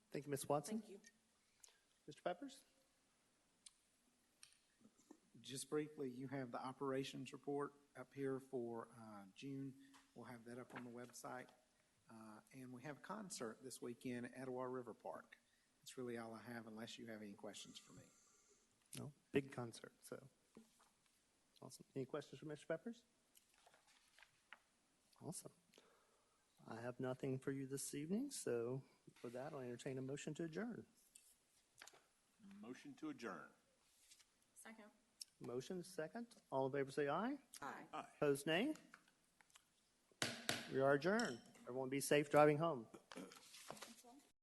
Ms. Watson? Thank you. Mr. Peppers? Just briefly, you have the operations report up here for uh, June. We'll have that up on the website. Uh, And we have a concert this weekend at Etowah River Park. That's really all I have unless you have any questions for me. No, big concert, so. Awesome. Any questions for Mr. Peppers? Awesome. I have nothing for you this evening, so for that, I'll entertain a motion to adjourn. Motion to adjourn. Second. Motion, second. All in favor, say aye. Aye. Opposed, nay. We are adjourned. Everyone be safe driving home.